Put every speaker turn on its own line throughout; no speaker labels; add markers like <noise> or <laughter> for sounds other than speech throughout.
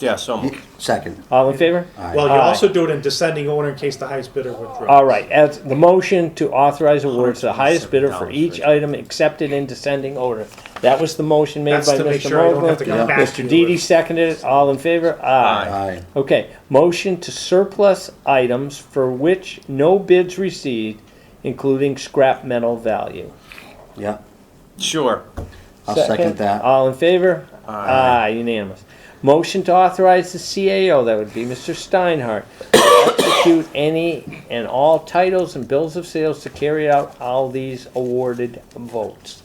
Yeah, so moved.
Second.
All in favor?
Well, you
Aye.
also do it in descending order in case the highest bidder withdraws.
All right, as the motion to authorize awards to the highest bidder for each item accepted in descending order. That was the motion made
That's
by
to make
Mr.
sure I don't have to
Mogul.
come back to
Mr.
you.
Didi seconded it, all in favor? Aye.
Aye.
Okay, motion to surplus items for which no bids received, including scrap metal value.
Yeah,
Sure.
I'll second that.
All in favor? Aye. unanimous. Motion to authorize the CAO, that would be Mr. Steinhardt, to execute any and all titles and bills of sales to carry out all these awarded votes.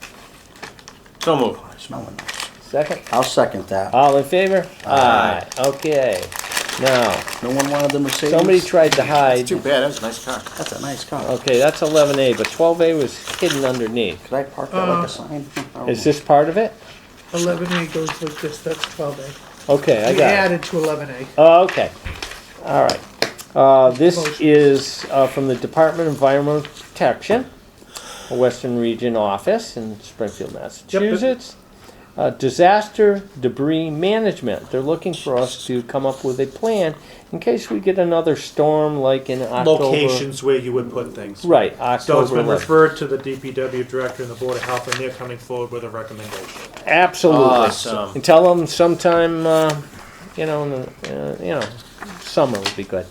So moved.
Smelling nice.
Second?
I'll second that.
All in favor? Aye. Okay, now,
No one wanted the Mercedes?
somebody tried to hide,
Too bad, that was a nice car.
That's a nice car.
okay, that's eleven A, but twelve A was hidden underneath.
Could I park that like a sign?
Is this part of it?
Eleven A goes with this, that's twelve A.
Okay, I
We
got it.
added to eleven A.
Oh, okay, all right. Uh, This
Motion.
is uh, from the Department of Environmental Protection, Western Region Office in Springfield, Massachusetts. Uh, Disaster debris management, they're looking for us to come up with a plan in case we get another storm like in October.
Locations where you would put things.
Right,
So it's
October
been
11th.
referred to the DPW director and the board of health, and they're coming forward with a recommendation.
Absolutely.
Awesome.
And tell them sometime, uh, you know, in the- uh, you know, summer would be good.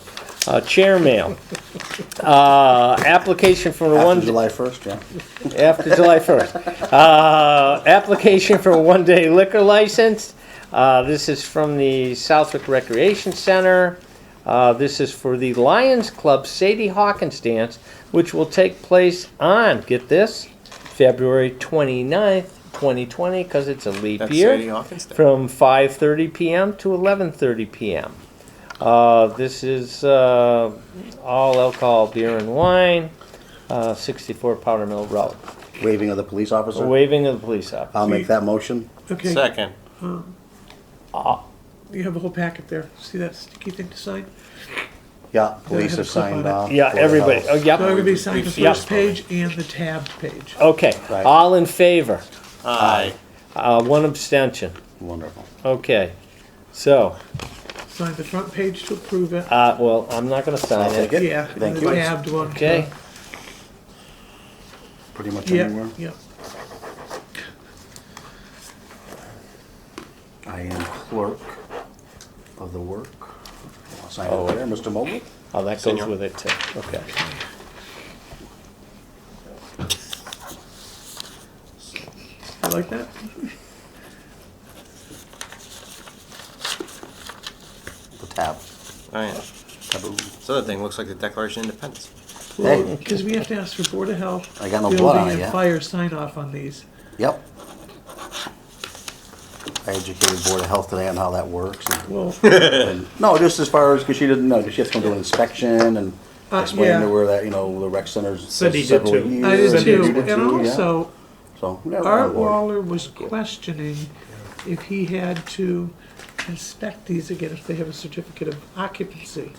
Uh, Chair mail. Uh, Application for a
After
one,
July first, yeah.
after July 1st. Uh, Application for a one-day liquor license. Uh, This is from the Southwick Recreation Center. Uh, This is for the Lions Club Sadie Hawkins Dance, which will take place on, get this, February 29th, 2020, because it's a leap
That's
year
Sadie Hawkins Day.
from 5:30 p.m. to 11:30 p.m. Uh, this is uh, all alcohol, beer and wine, uh, 64 Powder Mill Road.
Waving of the police officer.
Waving of the police officer.
I'll make that motion.
Okay,
Second.
you have a whole packet there. See that sticky thing to sign?
Yeah, police have
have a clip on
signed
it.
off.
Yeah,
Board of
everybody.
Health.
Oh,
So I'm gonna
yep.
be signing the
We've- we've
first
seen it.
page and the tabbed page.
Oh.
Okay.
Right.
All in favor.
Aye.
Uh, one abstention.
Wonderful.
Okay. So,
Sign the front page to approve it.
uh, well, I'm not going to sign
I'll take
it.
it.
Yeah, and
Thank
the
you.
tabbed one.
Okay.
Pretty much
Yeah,
anywhere.
yeah.
I am clerk of the work. I'll sign it there, Mr. Mobley.
Oh, that goes
Senor.
with it too. Okay.
You like that?
The tab.
Aye.
Taboo.
This other thing looks like the Declaration of Independence.
Hey.
Because we have to ask for Board of Health.
I got no blood on it
Building
yet.
and fire sign off on these.
Yep. I educated Board of Health today on how that works.
<laughs>
and-
Well,
and- No, just as far as, because she didn't know, 'cause she has to come do an inspection and
Uh,
explain to
yeah.
her that, you know, the rec center's.
Cindy did
several
too.
years,
<laughs> I did
and you
too.
did
And
too, yeah. Oh,
also,
So. we got
Art
on board.
Waller was questioning if he had to inspect these again if they have a certificate of occupancy.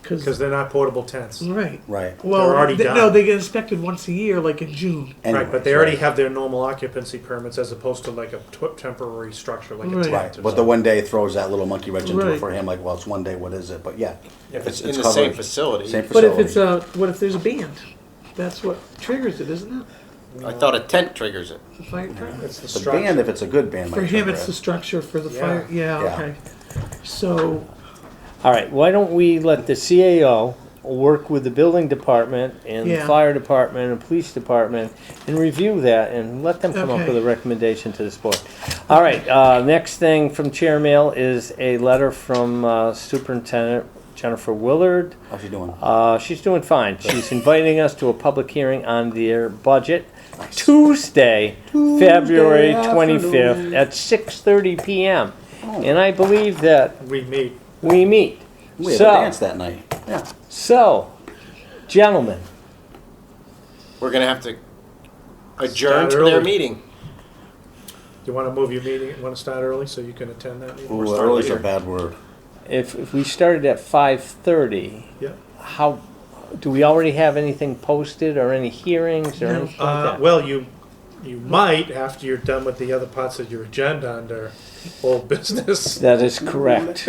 Because
Because,
they're not portable tents.
right.
Right.
Well,
already
they-
done.
No, they get inspected once a year, like in June.
Right, but they
Anyways,
already
right.
have their normal occupancy permits as opposed to like a tw- temporary structure like a
Right.
tent.
Right, but
or
the
something.
one day throws that little monkey wrench into it
Right.
for him, like, well, it's one day, what is it? But yeah.
If it's in the same
covered.
facility.
Same
But if it's
facility.
a, what if there's a band? That's what triggers it, isn't it?
I thought a tent triggers it.
The fire department.
It's the
The band,
structure.
if it's a good band.
For
might
him,
trigger
it's
it.
the structure for the
Yeah.
fire, yeah,
Yeah.
okay. So,
All right, why don't we let the CAO work with the building department and the
Yeah.
fire department and police department and review that and let them come up
Okay.
with a recommendation to this board. All right, uh, next thing from chair mail is a letter from uh, Superintendent Jennifer Willard.
How's she doing?
Uh, she's doing fine.
<laughs>
She's inviting us to a public hearing on their budget Tuesday, February twenty-fifth at six thirty PM. And I believe that
We meet.
we meet.
We have a
So-
dance that night. Yeah.
so, gentlemen,
We're gonna have to adjourn
Start
to their
early.
meeting.
You want to move your meeting, want to start early so you can attend that meeting?
Ooh,
start
early's a
later.
bad word.
if, if we started at five thirty,
Yeah.
how, do we already have anything posted or any hearings or
No.
anything like
Uh,
that?
well, you, you might after you're done with the other parts of your agenda under old business.
That is correct.